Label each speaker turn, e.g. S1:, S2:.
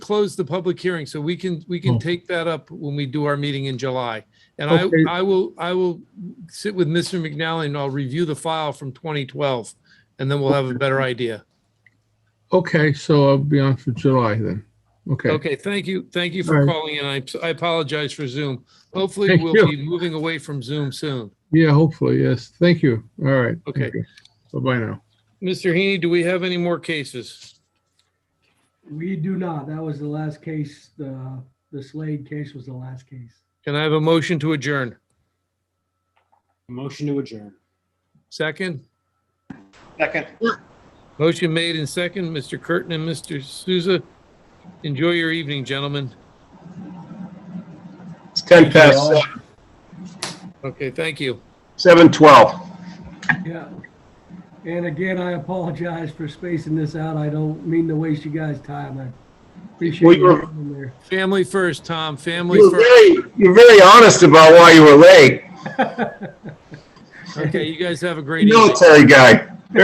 S1: closed the public hearing, so we can, we can
S2: Oh.
S1: take that up when we do our meeting in July. And I,
S2: Okay.
S1: I will, I will sit with Mr. McNally and I'll review the file from 2012, and then we'll have a better idea.
S2: Okay, so I'll be on for July then. Okay,
S1: Okay, thank you, thank you
S2: All
S1: for
S2: right.
S1: calling in. I, I apologize for Zoom. Hopefully,
S2: Thank
S1: we'll
S2: you.
S1: be moving away from Zoom soon.
S2: yeah, hopefully, yes. Thank you. All right.
S1: Okay.
S2: Thank you. Bye-bye now.
S1: Mr. Heaney, do we have any more cases?
S3: We do not. That was the last case. The, the Slade case was the last case.
S1: Can I have a motion to adjourn?
S4: Motion to adjourn.
S1: Second?
S4: Second.
S1: Motion made and second, Mr. Curtin and Mr. Souza. Enjoy your evening, gentlemen.
S5: It's 10 past
S1: Okay, thank you.
S5: 7:12.
S3: Yeah. And again, I apologize for spacing this out. I don't mean to waste you guys' time. I appreciate
S5: We
S3: you
S5: were-
S3: coming there.
S1: Family first, Tom, family
S5: You're
S1: first.
S5: very, you're very honest about why you were late.
S1: Okay, you guys have a great evening.
S5: Military guy.